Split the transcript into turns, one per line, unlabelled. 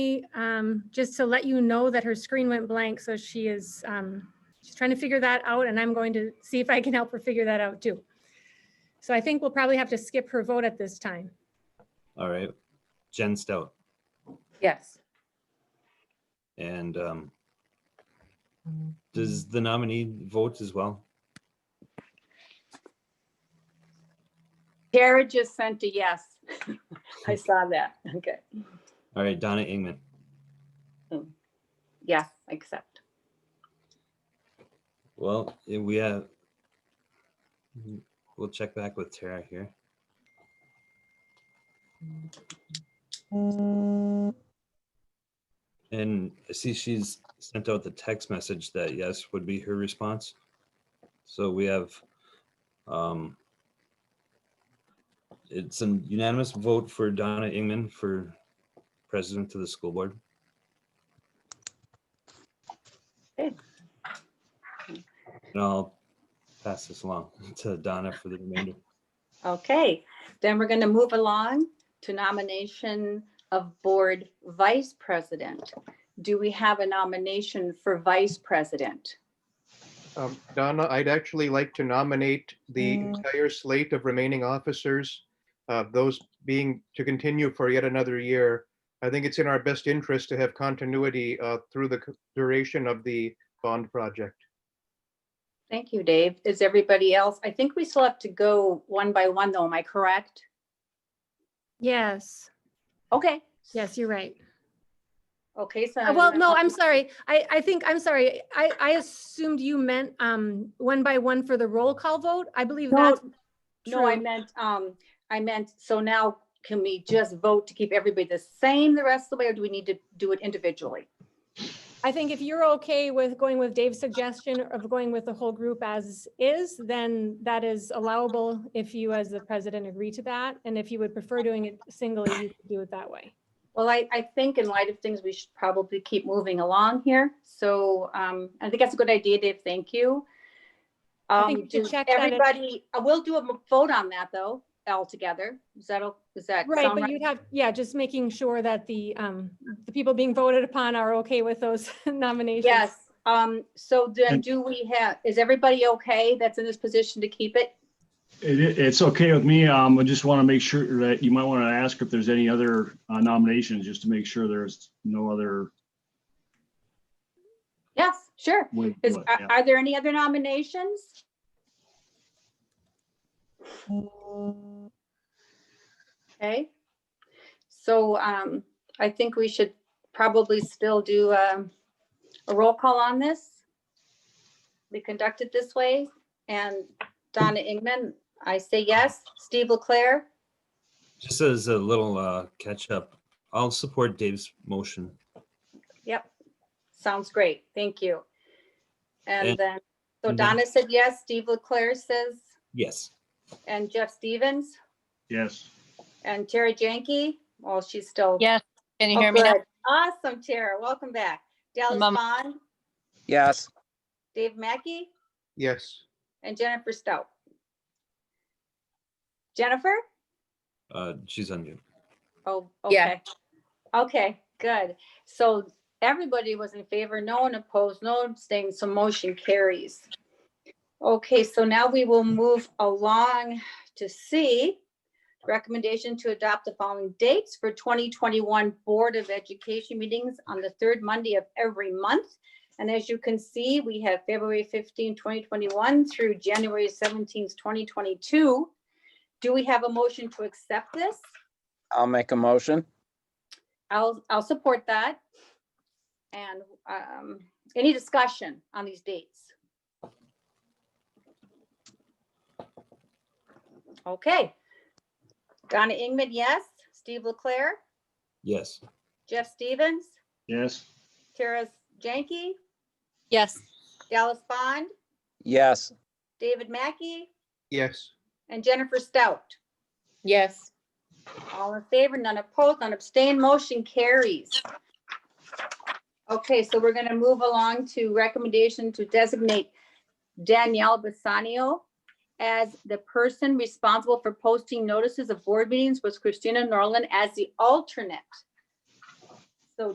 um, just to let you know that her screen went blank, so she is, um, she's trying to figure that out, and I'm going to see if I can help her figure that out too. So I think we'll probably have to skip her vote at this time.
All right, Jen Stout
Yes.
and um, does the nominee vote as well?
Tara just sent a yes. I saw that. Okay.
All right, Donna Ingman,
Yes, accept.
well, eh, we have, Mm, we'll check back with Tara here. And I see she's sent out the text message that yes would be her response. So we have, um, it's an unanimous vote for Donna Ingman for president of the school board.
Good.
And I'll pass this along to Donna for the remainder.
Okay, then we're going to move along to nomination of board vice president. Do we have a nomination for vice president?
Um, Donna, I'd actually like to nominate the entire slate of remaining officers, uh, those being to continue for yet another year. I think it's in our best interest to have continuity uh, through the c- duration of the bond project.
Thank you, Dave. Is everybody else? I think we still have to go one by one though, am I correct?
Yes,
Okay.
yes, you're right.
Okay, so.
Uh, Well, no, I'm sorry. I, I think, I'm sorry. I, I assumed you meant, um, one by one for the roll call vote. I believe
No,
that's
No, I
true.
meant, um, I meant, so now can we just vote to keep everybody the same the rest of the way, or do we need to do it individually?
I think if you're okay with going with Dave's suggestion of going with the whole group as is, then that is allowable if you, as the president, agree to that. And if you would prefer doing it singly, you could do it that way.
Well, I, I think in light of things, we should probably keep moving along here. So, um, I think that's a good idea, Dave. Thank you.
I think
Um,
we should
does
check that it-
everybody, I will do a m- vote on that though, altogether. Is that, o- is that?
Right,
sound
but you'd have, yeah, just making sure that the, um, the people being voted upon are okay with those nominations.
Yes. Um, so then do we have, is everybody okay that's in this position to keep it?
It, it- it's okay with me. Um, I just want to make sure that you might want to ask if there's any other uh, nominations, just to make sure there's no other
Yes, sure.
way. to
Is,
do it,
are,
yeah.
are there any other nominations? Okay. So, um, I think we should probably still do, um, a roll call on this. We conduct it this way and Donna Ingman, I say yes. Steve Leclaire,
Just as a little uh, catch up, I'll support Dave's motion.
sounds great. Thank you. And
And-
then, so
and then-
Donna said yes, Steve Leclaire says,
Yes.
and Jeff Stevens?
Yes.
And Tara Jenke, oh, she's still.
Yes, can you
Oh,
hear me now?
good. Awesome, Tara. Welcome back. Dallas
Mama.
Bond,
Yes,
Dave Mackey,
Yes,
and Jennifer Stout. Jennifer?
Uh, she's on mute.
Oh,
Yeah.
okay. Okay, good. So everybody was in favor, no one opposed, no abstained, so motion carries. Okay, so now we will move along to C. Recommendation to adopt the following dates for 2021 Board of Education meetings on the third Monday of every month. And as you can see, we have February 15, 2021 through January 17, 2022. Do we have a motion to accept this?
I'll make a motion.
I'll, I'll support that. And um, any discussion on these dates? Okay. Donna Ingman, yes. Steve Leclaire,
Yes.
Jeff Stevens,
Yes.
Tara Jenke,
Yes,
Dallas Bond,
Yes,
David Mackey,
yes,
and Jennifer Stout.
Yes,
All in favor, none opposed, none abstained, motion carries. Okay, so we're gonna move along to recommendation to designate Danielle Bassanio as the person responsible for posting notices of board meetings with Christina Norland as the alternate.